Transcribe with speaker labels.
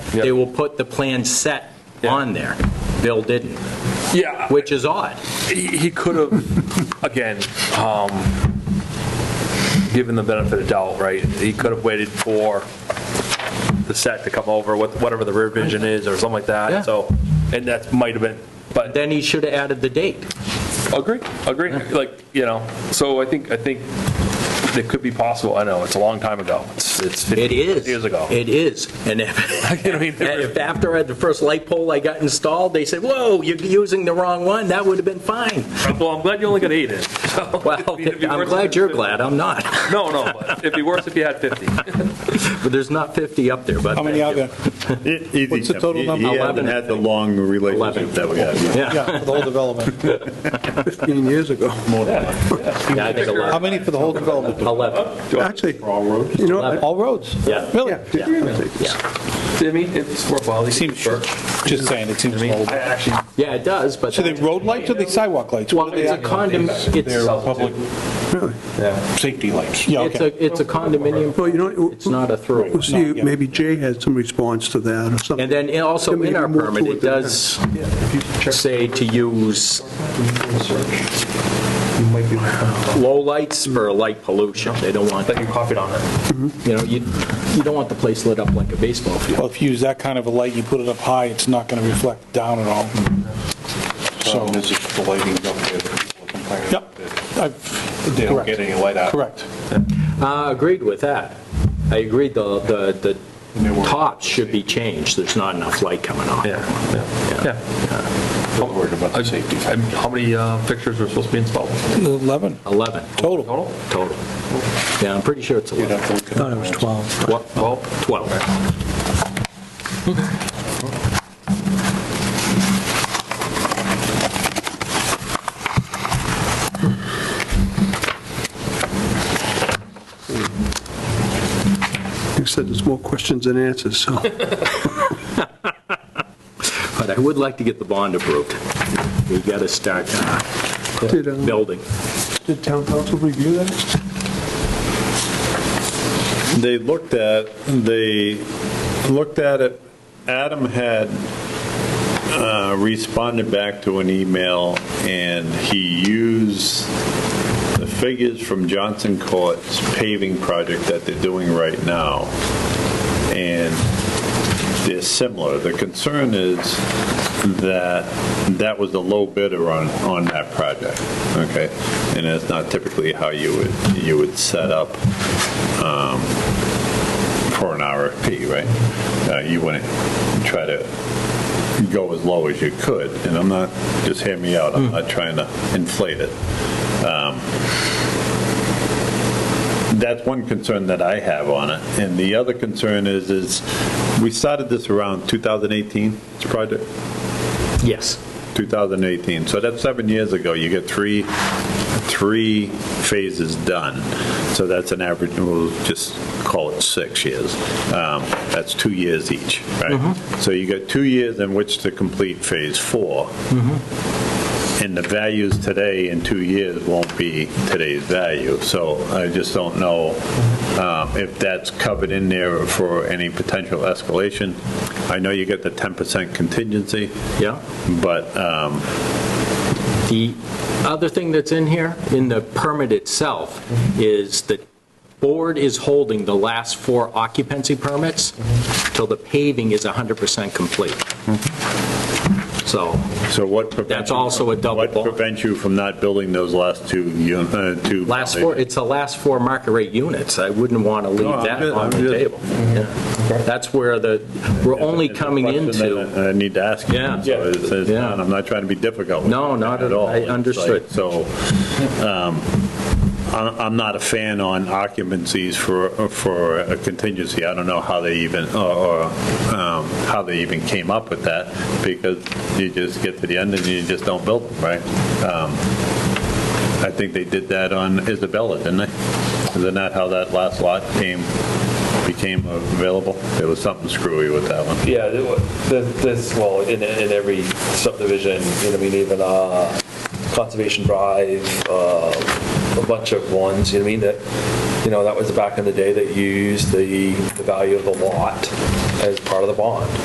Speaker 1: Yep.
Speaker 2: they will put the plan set on there. Bill didn't,
Speaker 1: Yeah,
Speaker 2: which is odd.
Speaker 1: he he could have, again, um, given the benefit of doubt, right? He could have waited for the set to come over, with whatever the rear vision is or something like
Speaker 2: Yeah.
Speaker 1: that, so, and that might have been, but,
Speaker 2: Then he should have added the date.
Speaker 1: agree, agree, like, you know, so I think, I think it could be possible, I know, it's a long time ago, it's it's
Speaker 2: It
Speaker 1: 50
Speaker 2: is.
Speaker 1: years ago.
Speaker 2: It is. And if,
Speaker 1: You know what I mean?
Speaker 2: if after I had the first light pole I got installed, they said, whoa, you're using the wrong one, that would have been fine.
Speaker 1: Well, I'm glad you only got eight in. so-
Speaker 2: Well,
Speaker 1: It'd be
Speaker 2: I'm
Speaker 1: worse
Speaker 2: glad
Speaker 1: if-
Speaker 2: you're glad, I'm not.
Speaker 1: No, no, but it'd be worse if you had 50.
Speaker 2: But there's not 50 up there, but.
Speaker 3: How many are
Speaker 2: thank you.
Speaker 3: there? What's the total number?
Speaker 4: He
Speaker 2: Eleven.
Speaker 4: hasn't had the long relationship
Speaker 2: Eleven.
Speaker 4: that we have.
Speaker 2: Yeah,
Speaker 3: Yeah, for the whole development.
Speaker 5: 15 years ago.
Speaker 2: Yeah, I think
Speaker 3: How
Speaker 2: 11.
Speaker 3: many for the whole development?
Speaker 2: 11,
Speaker 5: Actually, you know, I-
Speaker 3: All roads?
Speaker 2: Yeah.
Speaker 3: Really?
Speaker 5: yeah, 15 years ago.
Speaker 2: yeah.
Speaker 1: I mean, it's worthwhile. It
Speaker 3: Seems short. Just saying, it seems
Speaker 1: I mean,
Speaker 3: old.
Speaker 1: I actually,
Speaker 2: Yeah, it does, but.
Speaker 3: So they
Speaker 2: that's-
Speaker 3: road lights or they sidewalk lights?
Speaker 2: Well,
Speaker 3: What are
Speaker 2: it's a
Speaker 3: they?
Speaker 2: condom,
Speaker 3: They're
Speaker 2: it's,
Speaker 3: public safety lights. Yeah,
Speaker 2: it's
Speaker 3: okay.
Speaker 2: a, it's a condominium.
Speaker 5: Well, you know.
Speaker 2: It's not a throw.
Speaker 5: We'll see,
Speaker 3: Not yet.
Speaker 5: maybe Jay had some response to that or something.
Speaker 2: And then in- also
Speaker 5: Then we
Speaker 2: in
Speaker 5: can
Speaker 2: our
Speaker 5: move
Speaker 2: permit,
Speaker 5: to
Speaker 2: it
Speaker 5: then.
Speaker 2: does say to use low lights for light pollution. They don't want,
Speaker 1: that you copied on it.
Speaker 2: you know, you, you don't want the place lit up like a baseball field.
Speaker 3: Well, if you use that kind of a light, you put it up high, it's not going to reflect down at all. So,
Speaker 6: Problem is it's the lighting up there that people are complaining
Speaker 3: yep. I've-
Speaker 6: They don't
Speaker 3: Correct.
Speaker 6: get any light out.
Speaker 3: Correct.
Speaker 2: Uh, agreed with that. I agreed the, the, the tops should be changed. There's not enough light coming off.
Speaker 1: Yeah, yeah.
Speaker 6: I'm worried about the safety.
Speaker 1: I mean, How many uh, pictures were supposed to be installed?
Speaker 3: 11
Speaker 2: 11
Speaker 3: total.
Speaker 1: Total?
Speaker 2: total. Yeah, I'm pretty sure it's
Speaker 6: You'd
Speaker 2: 11.
Speaker 6: have to look at
Speaker 5: Thought it was 12.
Speaker 2: What?
Speaker 1: Well,
Speaker 2: 12.
Speaker 5: You said there's more questions than answers, so.
Speaker 2: But I would like to get the bond approved. We got to start uh,
Speaker 5: Did, um,
Speaker 2: building.
Speaker 5: Did town council review that?
Speaker 4: They looked at, they looked at it, Adam had uh, responded back to an email, and he used the figures from Johnson Court's paving project that they're doing right now, and they're similar. The concern is that that was the low bidder on, on that project, okay? And that's not typically how you would, you would set up for an RFP, right? Uh, You wouldn't try to go as low as you could, and I'm not, just hear me out, I'm not trying to inflate it. Um, That's one concern that I have on it, and the other concern is, is we started this around 2018, this project,
Speaker 2: Yes.
Speaker 4: 2018, so that's seven years ago, you get three, three phases done, so that's an average, we'll just call it six years, Um, that's two years each, right? So you got two years in which to complete phase four, and the values today in two years won't be today's value, so I just don't know um, if that's covered in there for any potential escalation. I know you get the 10% contingency,
Speaker 2: Yeah.
Speaker 4: but um,
Speaker 2: The other thing that's in here, in the permit itself, is the board is holding the last four occupancy permits till the paving is 100% complete. So,
Speaker 4: so what prevents?
Speaker 2: That's also a double
Speaker 4: What
Speaker 2: bond.
Speaker 4: prevents you from not building those last two, un- uh, two?
Speaker 2: last four, it's the last four market rate units. I wouldn't want to
Speaker 4: No,
Speaker 2: leave
Speaker 4: I'm
Speaker 2: that
Speaker 4: good,
Speaker 2: on
Speaker 4: I'm
Speaker 2: the
Speaker 4: good.
Speaker 2: table. Yeah. That's where the, we're only
Speaker 4: It's a
Speaker 2: coming
Speaker 4: question
Speaker 2: into,
Speaker 4: that I I need to ask you.
Speaker 2: Yeah.
Speaker 4: So it's- it's
Speaker 2: Yeah.
Speaker 4: not- I'm not trying to be difficult. with
Speaker 2: No,
Speaker 4: you
Speaker 2: not at all. I
Speaker 4: It's like-
Speaker 2: understood.
Speaker 4: So um, I'm I'm not a fan on occupancies for, for a contingency. I don't know how they even, or- or um, how they even came up with that because you just get to the end and you just don't build them, right? Um, I think they did that on Isabella, didn't they? Isn't that how that last lot came, became available? There was something screwy with that one.
Speaker 1: Yeah, it wa- th- this, well, in, in every subdivision, you know, I mean, even uh, Conservation Drive, uh, a bunch of ones, you know, what I mean, that, you know, that was back in the day that you used the, the value of the lot as part of the bond.